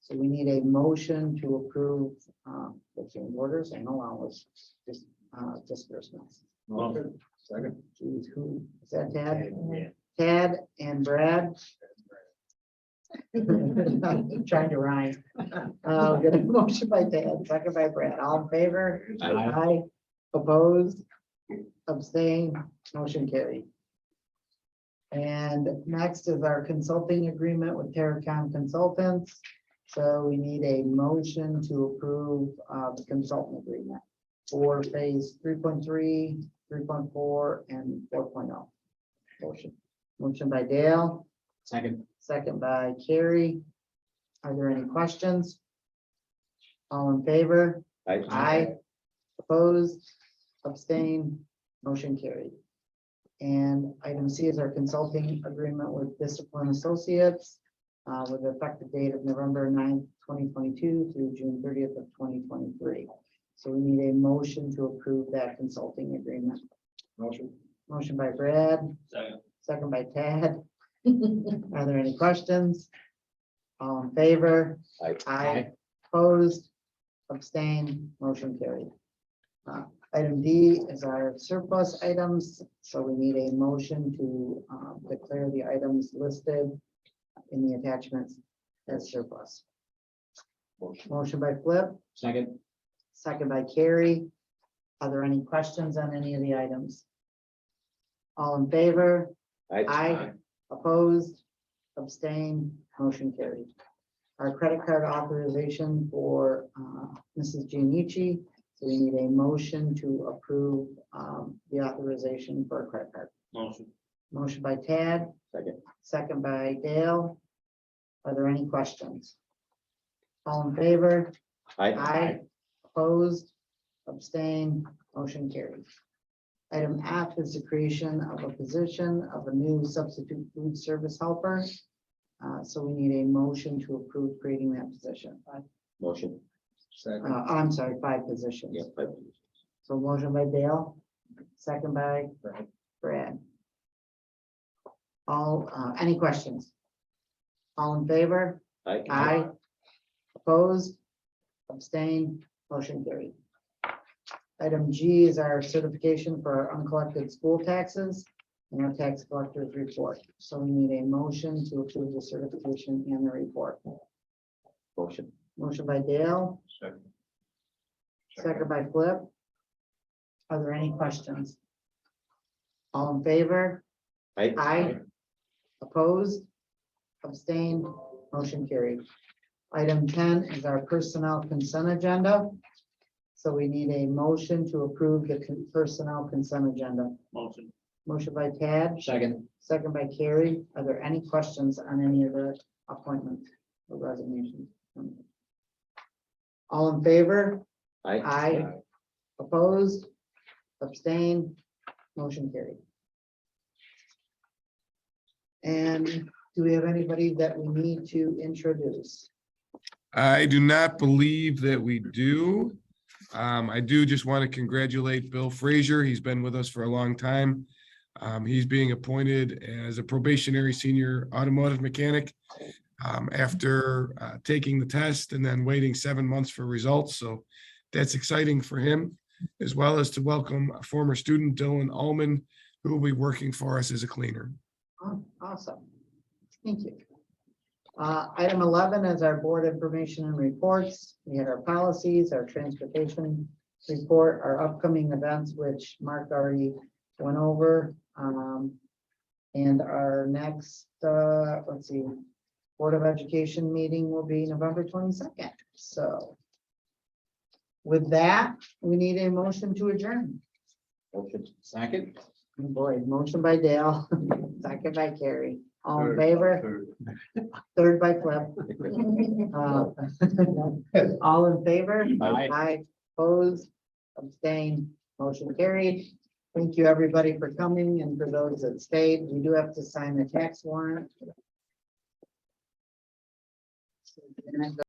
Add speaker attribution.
Speaker 1: So we need a motion to approve um, the change orders and allowance dis- uh, disbursements.
Speaker 2: Motion. Second.
Speaker 1: Geez, who, is that Tad?
Speaker 2: Yeah.
Speaker 1: Tad and Brad? Trying to rhyme. Uh, Get a motion by Tad, second by Brad, all in favor?
Speaker 2: Aye.
Speaker 1: Aye. Opposed? Abstained, motion carried. And next is our consulting agreement with Terracom Consultants. So we need a motion to approve uh, the consultant agreement for phase three point three, three point four, and four oh. Motion. Motion by Dale.
Speaker 2: Second.
Speaker 1: Second by Carrie. Are there any questions? All in favor? Aye. Opposed? Abstain? Motion carried. And item C is our consulting agreement with Discipline Associates uh, with effective date of November 9th, twenty twenty-two through June thirtieth of twenty twenty-three. So we need a motion to approve that consulting agreement.
Speaker 2: Motion.
Speaker 1: Motion by Brad.
Speaker 2: Second.
Speaker 1: Second by Tad. Are there any questions? All in favor?
Speaker 2: Aye.
Speaker 1: Aye. Opposed? Abstained? Motion carried. Uh, Item D is our surplus items, so we need a motion to um, declare the items listed in the attachments as surplus.
Speaker 2: Motion.
Speaker 1: Motion by Flip,
Speaker 2: Second.
Speaker 1: second by Carrie. Are there any questions on any of the items? All in favor? Aye. Opposed, abstained, motion carried. Our credit card authorization for uh, Mrs. Giannici. So we need a motion to approve um, the authorization for a credit card.
Speaker 2: Motion.
Speaker 1: Motion by Tad,
Speaker 2: Second.
Speaker 1: second by Dale. Are there any questions? All in favor? Aye. Opposed, abstained, motion carried. Item F is the creation of a position of a new substitute food service helper. Uh, so we need a motion to approve creating that position. Uh,
Speaker 2: Motion. Second.
Speaker 1: I'm sorry, five positions. So motion by Dale, second by
Speaker 2: Brad.
Speaker 1: Brad. All, uh, any questions? All in favor? Aye. Opposed? Abstained? Motion carried. Item G is our certification for our uncollected school taxes and our tax collector's report. So we need a motion to approve the certification and the report.
Speaker 2: Motion.
Speaker 1: Motion by Dale,
Speaker 2: Second.
Speaker 1: second by Flip. Are there any questions? All in favor? Aye. Opposed? Abstained? Motion carried. Item ten is our personnel consent agenda. So we need a motion to approve the con- personnel consent agenda.
Speaker 2: Motion.
Speaker 1: Motion by Tad,
Speaker 2: Second.
Speaker 1: second by Carrie. Are there any questions on any of the appointments or resignations? All in favor? Aye. Opposed? Abstained? Motion carried. And do we have anybody that we need to introduce?
Speaker 3: I do not believe that we do. Um, I do just want to congratulate Bill Frazier. He's been with us for a long time. Um, he's being appointed as a probationary senior automotive mechanic um, after uh, taking the test and then waiting seven months for results. So that's exciting for him, as well as to welcome a former student Dylan Allman, who will be working for us as a cleaner.
Speaker 1: Oh, Awesome. Thank you. Uh, Item 11 is our board information and reports. We had our policies, our transportation report, our upcoming events, which Mark already went over. um, And our next, uh, let's see, Board of Education meeting will be November 22nd. So with that, we need a motion to adjourn.
Speaker 2: Motion. Second.
Speaker 1: Oh Boy, motion by Dale, second by Carrie. All in favor? Third by Flip. Uh, All in favor?
Speaker 2: Aye.
Speaker 1: Aye, opposed, abstained, motion carried. Thank you, everybody, for coming and for those that stayed. We do have to sign the tax warrant. And that goes